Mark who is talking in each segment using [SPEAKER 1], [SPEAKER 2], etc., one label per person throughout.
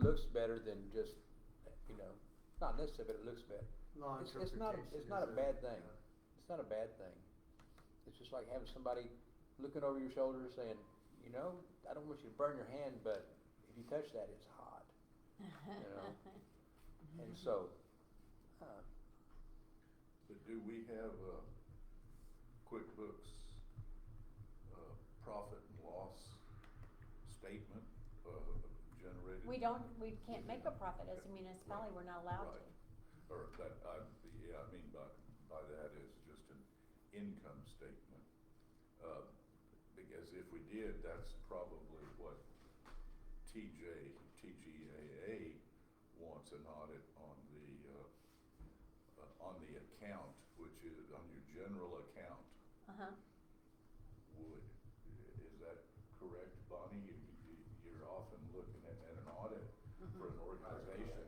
[SPEAKER 1] looks better than just, you know, not necessarily, but it looks better.
[SPEAKER 2] Law
[SPEAKER 1] It's, it's not, a- it's
[SPEAKER 2] interpretation
[SPEAKER 1] not a
[SPEAKER 2] is uh,
[SPEAKER 1] bad thing. It's not a bad thing. It's just like having somebody looking over your shoulder saying, you know, I don't want you to burn your hand, but if you touch that, it's hot. You know? And so, uh,
[SPEAKER 3] But do we have, uh, QuickBooks, uh, profit and loss statement, uh, generated?
[SPEAKER 4] We don't, we can't make a profit as a municipality, we're not allowed to.
[SPEAKER 3] Right. Or that, I, yeah, I mean by, by that is just an income statement. Uh, because if we did, that's probably what TJ, TGAA wants an audit on the, uh, uh, on the account, which is, on your general account,
[SPEAKER 4] Uh-huh,
[SPEAKER 3] would, is that correct, Bonnie? You, you, you're often looking at, at an audit for an organization,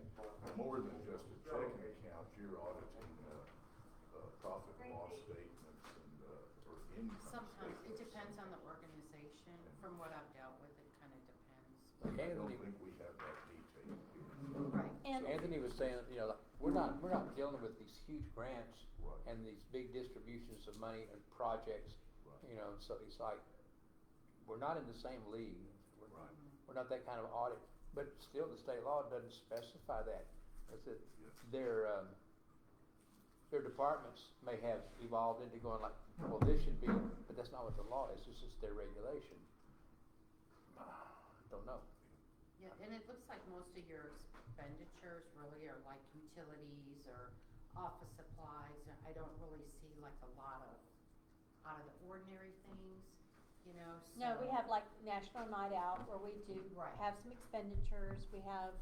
[SPEAKER 3] more than just a checking account, you're auditing, uh, uh, profit and loss statements and, uh, or income
[SPEAKER 5] Sometimes,
[SPEAKER 3] statements.
[SPEAKER 5] it depends on the organization, from what I've dealt with, it kinda depends.
[SPEAKER 3] I don't
[SPEAKER 1] Anthony,
[SPEAKER 3] think we have that detail here.
[SPEAKER 5] Right.
[SPEAKER 4] and,
[SPEAKER 1] Anthony was saying, you know, like, we're not, we're not dealing with these huge grants
[SPEAKER 4] Mm-hmm.
[SPEAKER 3] Right,
[SPEAKER 1] and these big distributions of money and projects,
[SPEAKER 3] right,
[SPEAKER 1] you know, so it's like, we're not in the same league. We're-
[SPEAKER 3] right,
[SPEAKER 1] We're not that kind of audit, but still, the state law doesn't specify that. That's it.
[SPEAKER 3] yes.
[SPEAKER 1] Their, um, their departments may have evolved into going like, well, this should be, but that's not what the law is, it's just their regulation. Ah, Don't know.
[SPEAKER 5] Yeah, and it looks like most of your expenditures really are like utilities or office supplies, and I don't really see like a lot of, out of the ordinary things, you know, so.
[SPEAKER 4] no, we have like National Night Out where we do
[SPEAKER 5] Right.
[SPEAKER 4] have some expenditures, we have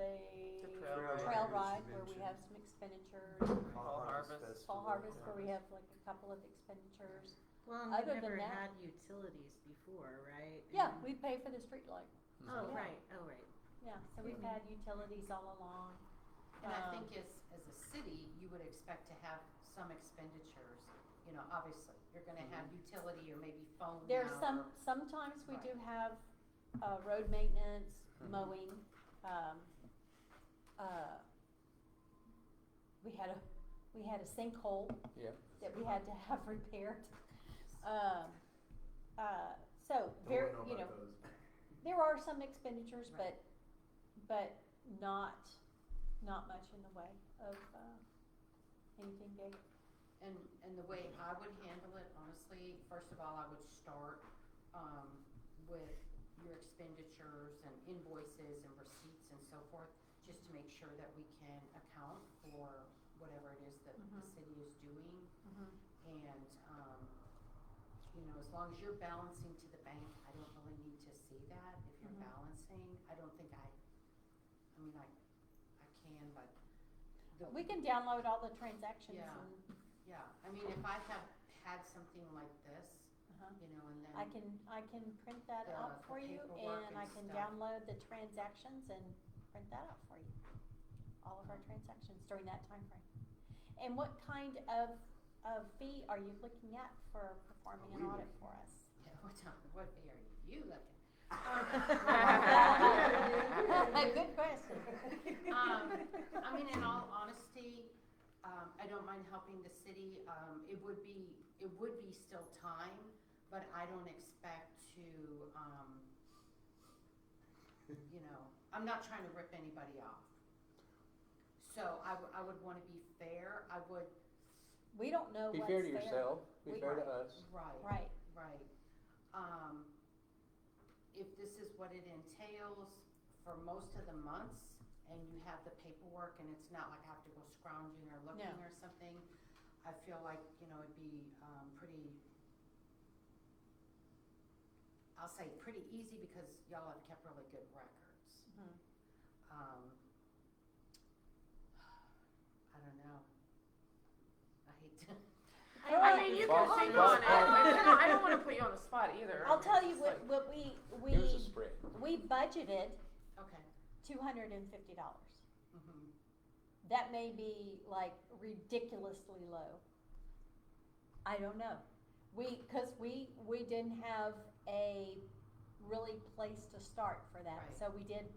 [SPEAKER 4] the
[SPEAKER 6] The
[SPEAKER 2] trail ride
[SPEAKER 4] trail ride where we
[SPEAKER 2] convention.
[SPEAKER 4] have some expenditures,
[SPEAKER 2] Fall harvest festival.
[SPEAKER 4] fall harvest where we have like a couple of expenditures.
[SPEAKER 6] Well, and
[SPEAKER 4] Other
[SPEAKER 6] we've
[SPEAKER 4] than
[SPEAKER 6] never
[SPEAKER 4] that-
[SPEAKER 6] had utilities before, right?
[SPEAKER 4] Yeah,
[SPEAKER 6] And-
[SPEAKER 4] we pay for the streetlight,
[SPEAKER 6] Oh,
[SPEAKER 4] Yeah.
[SPEAKER 6] right, oh, right. Mm-hmm.
[SPEAKER 4] yeah, so we've had utilities all along.
[SPEAKER 5] And I
[SPEAKER 4] Um,
[SPEAKER 5] think as, as a city, you would expect to have some expenditures, you know, obviously, you're gonna have utility or maybe phone now.
[SPEAKER 4] There's some, sometimes we do have, uh, road maintenance,
[SPEAKER 2] Mm-hmm.
[SPEAKER 1] Mhm.
[SPEAKER 4] mowing, um, uh, we had a, we had a sinkhole
[SPEAKER 1] Yeah.
[SPEAKER 4] that we had to have repaired. Um, uh, so
[SPEAKER 2] Don't
[SPEAKER 4] there,
[SPEAKER 2] wanna
[SPEAKER 4] you know,
[SPEAKER 2] about those.
[SPEAKER 4] there are some expenditures, but,
[SPEAKER 5] Right.
[SPEAKER 4] but not, not much in the way of, uh, anything big.
[SPEAKER 5] And, and the way I would handle it, honestly, first of all, I would start, um, with your expenditures and invoices and receipts and so forth, just to make sure that we can account for whatever it is that the
[SPEAKER 4] Mhm.
[SPEAKER 5] city is doing. Mm-hmm. And, um, you know, as long as you're balancing to the bank, I don't really need to see that. If you're
[SPEAKER 4] Mhm.
[SPEAKER 5] balancing, I don't think I, I mean, I, I can, but the,
[SPEAKER 4] We can download all the transactions
[SPEAKER 5] Yeah.
[SPEAKER 4] and,
[SPEAKER 5] yeah, I mean, if I have had something like this,
[SPEAKER 4] uh
[SPEAKER 5] you know, and then.
[SPEAKER 4] I can, I can print that
[SPEAKER 5] Yeah,
[SPEAKER 4] out
[SPEAKER 5] the
[SPEAKER 4] for you
[SPEAKER 5] paperwork
[SPEAKER 4] and I
[SPEAKER 5] and
[SPEAKER 4] can
[SPEAKER 5] stuff.
[SPEAKER 4] download the transactions and print that out for you. All of our transactions during that time frame. And what kind of, of fee are you looking at for performing an
[SPEAKER 3] We
[SPEAKER 4] audit for
[SPEAKER 3] would-
[SPEAKER 4] us?
[SPEAKER 5] Yeah, what time, what day are you looking?
[SPEAKER 4] Good question.
[SPEAKER 5] Um, I mean, in all honesty, um, I don't mind helping the city, um, it would be, it would be still time, but I don't expect to, um, you know, I'm not trying to rip anybody off. So I, w- I would wanna be fair, I would,
[SPEAKER 4] We don't know
[SPEAKER 1] Be
[SPEAKER 4] what's
[SPEAKER 1] fair to
[SPEAKER 4] fair.
[SPEAKER 1] yourself, be
[SPEAKER 5] We-
[SPEAKER 1] fair to us.
[SPEAKER 5] right,
[SPEAKER 4] Right,
[SPEAKER 5] right. Um, if this is what it entails for most of the months and you have the paperwork and it's not like I have to go scrounging or looking or something, I feel like, you know, it'd be, um, pretty, I'll say pretty easy because y'all have kept really good records.
[SPEAKER 4] Mhm.
[SPEAKER 5] Um, I don't know. I hate to.
[SPEAKER 6] Oh, I, I mean, you can
[SPEAKER 1] Boss-
[SPEAKER 6] think
[SPEAKER 1] boss-
[SPEAKER 6] on it, but you know, I don't wanna put you on the spot either.
[SPEAKER 4] I'll tell you
[SPEAKER 6] It's
[SPEAKER 4] what,
[SPEAKER 6] like-
[SPEAKER 4] what we, we,
[SPEAKER 1] Give us a spread.
[SPEAKER 4] we budgeted
[SPEAKER 5] Okay.
[SPEAKER 4] two hundred and fifty dollars.
[SPEAKER 5] Mm-hmm.
[SPEAKER 4] that may be like ridiculously low. I don't know. We, cause we, we didn't have a really place to start for that,
[SPEAKER 5] Right.
[SPEAKER 4] so we did